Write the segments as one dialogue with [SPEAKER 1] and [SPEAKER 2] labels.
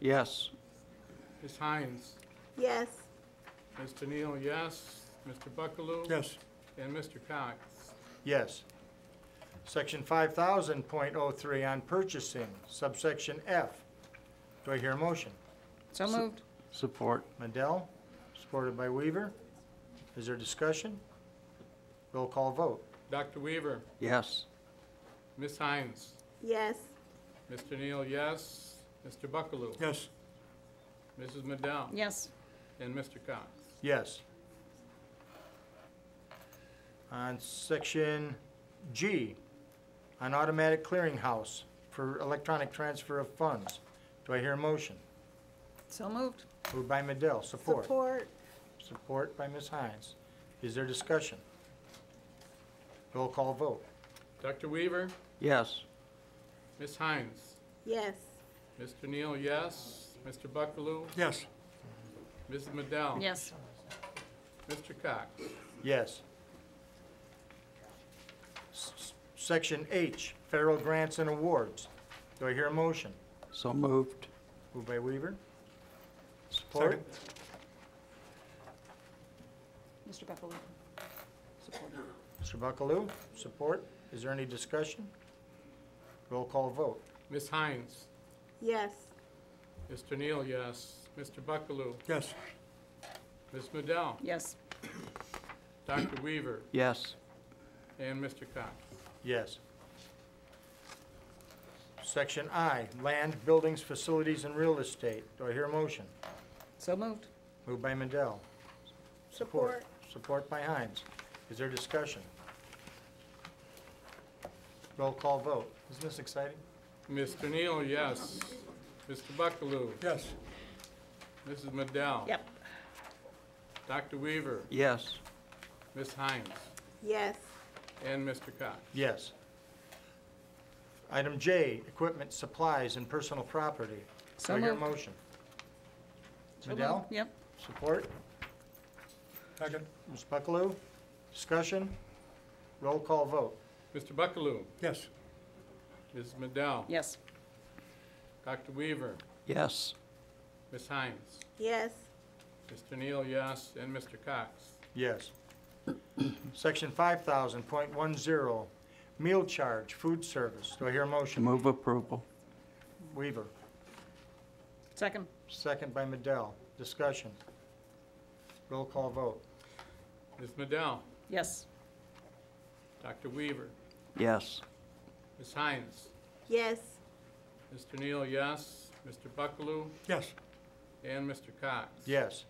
[SPEAKER 1] Yes.
[SPEAKER 2] Ms. Hines?
[SPEAKER 3] yes,
[SPEAKER 2] Mr. Neal, yes. Mr. Buckaloo?
[SPEAKER 4] Yes.
[SPEAKER 2] And Mr. Cox?
[SPEAKER 4] Yes. Section five thousand point oh three on purchasing, subsection F. Do I hear a motion?
[SPEAKER 5] So moved.
[SPEAKER 1] Support.
[SPEAKER 4] Madell, supported by Weaver. Is there discussion? Roll call vote.
[SPEAKER 2] Dr. Weaver?
[SPEAKER 1] Yes.
[SPEAKER 2] Ms. Hines?
[SPEAKER 3] yes,
[SPEAKER 2] Mr. Neal, yes. Mr. Buckaloo?
[SPEAKER 4] Yes.
[SPEAKER 2] Mrs. Madell?
[SPEAKER 5] Yes.
[SPEAKER 2] And Mr. Cox?
[SPEAKER 4] Yes. On section G, on automatic clearinghouse for electronic transfer of funds. Do I hear a motion?
[SPEAKER 5] So moved.
[SPEAKER 4] Moved by Madell, support.
[SPEAKER 3] support,
[SPEAKER 4] Support by Ms. Hines. Is there discussion? Roll call vote.
[SPEAKER 2] Dr. Weaver?
[SPEAKER 1] Yes.
[SPEAKER 2] Ms. Hines?
[SPEAKER 3] yes,
[SPEAKER 2] Mr. Neal, yes. Mr. Buckaloo?
[SPEAKER 4] Yes.
[SPEAKER 2] Mrs. Madell?
[SPEAKER 5] Yes.
[SPEAKER 2] Mr. Cox?
[SPEAKER 4] Yes. S- Section H, federal grants and awards. Do I hear a motion?
[SPEAKER 1] So moved.
[SPEAKER 4] Moved by Weaver. Support.
[SPEAKER 5] Mr. Buckaloo. Support.
[SPEAKER 4] Mr. Buckaloo, support. Is there any discussion? Roll call vote.
[SPEAKER 2] Ms. Hines?
[SPEAKER 3] yes,
[SPEAKER 2] Mr. Neal, yes. Mr. Buckaloo?
[SPEAKER 4] Yes.
[SPEAKER 2] Ms. Madell?
[SPEAKER 5] Yes.
[SPEAKER 2] Dr. Weaver?
[SPEAKER 1] Yes.
[SPEAKER 2] And Mr. Cox?
[SPEAKER 4] Yes. Section I, land, buildings, facilities, and real estate. Do I hear a motion?
[SPEAKER 5] So moved.
[SPEAKER 4] Moved by Madell.
[SPEAKER 3] support,
[SPEAKER 4] Support by Hines. Is there discussion? Roll call vote. Isn't this exciting?
[SPEAKER 2] Mr. Neal, yes. Mr. Buckaloo?
[SPEAKER 4] Yes.
[SPEAKER 2] Mrs. Madell?
[SPEAKER 5] Yep.
[SPEAKER 2] Dr. Weaver?
[SPEAKER 1] Yes.
[SPEAKER 2] Ms. Hines?
[SPEAKER 3] yes,
[SPEAKER 2] And Mr. Cox?
[SPEAKER 4] Yes. Item J, equipment, supplies, and personal property.
[SPEAKER 5] So
[SPEAKER 4] Do I hear a
[SPEAKER 5] moved.
[SPEAKER 4] motion?
[SPEAKER 5] So moved.
[SPEAKER 4] Madell,
[SPEAKER 5] Yep.
[SPEAKER 4] support? Second. Ms. Buckaloo, discussion? Roll call vote.
[SPEAKER 2] Mr. Buckaloo?
[SPEAKER 4] Yes.
[SPEAKER 2] Mrs. Madell?
[SPEAKER 5] Yes.
[SPEAKER 2] Dr. Weaver?
[SPEAKER 1] Yes.
[SPEAKER 2] Ms. Hines?
[SPEAKER 3] yes,
[SPEAKER 2] Mr. Neal, yes. And Mr. Cox?
[SPEAKER 4] Yes. Section 5000.10, meal charge, food service. Do I hear a motion?
[SPEAKER 1] Move approval.
[SPEAKER 4] Weaver.
[SPEAKER 5] Second.
[SPEAKER 4] Second by Madell. Discussion. Roll call vote.
[SPEAKER 2] Ms. Madell?
[SPEAKER 5] Yes.
[SPEAKER 2] Dr. Weaver?
[SPEAKER 1] Yes.
[SPEAKER 2] Ms. Hines?
[SPEAKER 3] yes,
[SPEAKER 2] Mr. Neal, yes. Mr. Buckaloo?
[SPEAKER 4] Yes.
[SPEAKER 2] And Mr. Cox?
[SPEAKER 4] Yes.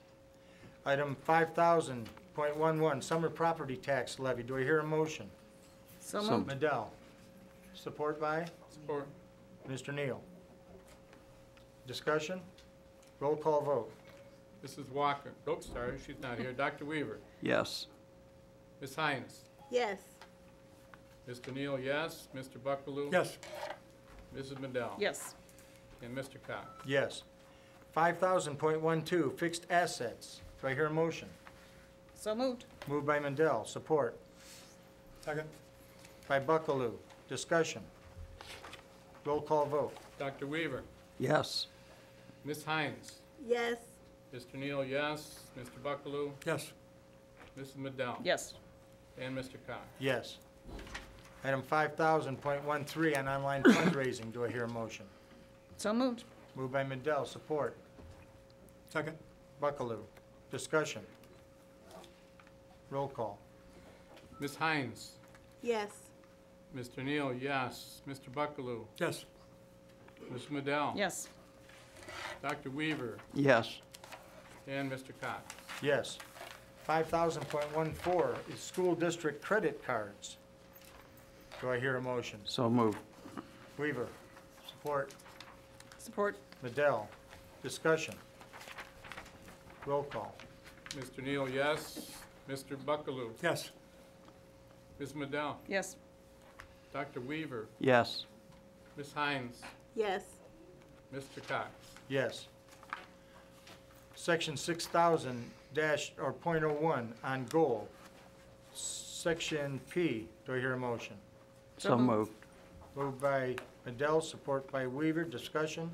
[SPEAKER 4] Item 5000.11, summer property tax levy. Do I hear a motion?
[SPEAKER 5] So
[SPEAKER 1] So-
[SPEAKER 5] moved.
[SPEAKER 4] Madell. Support by
[SPEAKER 2] Support.
[SPEAKER 4] Mr. Neal. Discussion. Roll call vote.
[SPEAKER 2] Mrs. Walker? Oh, sorry, she's not here. Dr. Weaver?
[SPEAKER 1] Yes.
[SPEAKER 2] Ms. Hines?
[SPEAKER 3] yes,
[SPEAKER 2] Mr. Neal, yes. Mr. Buckaloo?
[SPEAKER 4] Yes.
[SPEAKER 2] Mrs. Madell?
[SPEAKER 5] Yes.
[SPEAKER 2] And Mr. Cox?
[SPEAKER 4] Yes. 5000.12, fixed assets. Do I hear a motion?
[SPEAKER 5] So moved.
[SPEAKER 4] Moved by Mandel, support.
[SPEAKER 2] Second.
[SPEAKER 4] By Buckaloo, discussion. Roll call vote.
[SPEAKER 2] Dr. Weaver?
[SPEAKER 1] Yes.
[SPEAKER 2] Ms. Hines?
[SPEAKER 3] yes,
[SPEAKER 2] Mr. Neal, yes. Mr. Buckaloo?
[SPEAKER 4] Yes.
[SPEAKER 2] Mrs. Madell?
[SPEAKER 5] Yes.
[SPEAKER 2] And Mr. Cox?
[SPEAKER 4] Yes. Item 5000.13 on online fundraising, do I hear a motion?
[SPEAKER 5] So moved.
[SPEAKER 4] Moved by Mandel, support.
[SPEAKER 2] Second.
[SPEAKER 4] Buckaloo, discussion. Roll call.
[SPEAKER 2] Ms. Hines?
[SPEAKER 3] yes,
[SPEAKER 2] Mr. Neal, yes. Mr. Buckaloo?
[SPEAKER 4] Yes.
[SPEAKER 2] Ms. Madell?
[SPEAKER 5] Yes.
[SPEAKER 2] Dr. Weaver?
[SPEAKER 1] Yes.
[SPEAKER 2] And Mr. Cox?
[SPEAKER 4] Yes. 5000.14 is school district credit cards. Do I hear a motion?
[SPEAKER 1] So moved.
[SPEAKER 4] Weaver, support.
[SPEAKER 5] Support.
[SPEAKER 4] Madell, discussion. Roll call.
[SPEAKER 2] Mr. Neal, yes. Mr. Buckaloo?
[SPEAKER 4] Yes.
[SPEAKER 2] Ms. Madell?
[SPEAKER 5] Yes.
[SPEAKER 2] Dr. Weaver?
[SPEAKER 1] Yes.
[SPEAKER 2] Ms. Hines?
[SPEAKER 3] yes,
[SPEAKER 2] Mr. Cox?
[SPEAKER 4] Yes. Section six thousand dash, or point oh one on goal. Section P, do I hear a motion?
[SPEAKER 5] So
[SPEAKER 1] So
[SPEAKER 5] moved.
[SPEAKER 1] moved.
[SPEAKER 4] Moved by Madell, support by Weaver, discussion.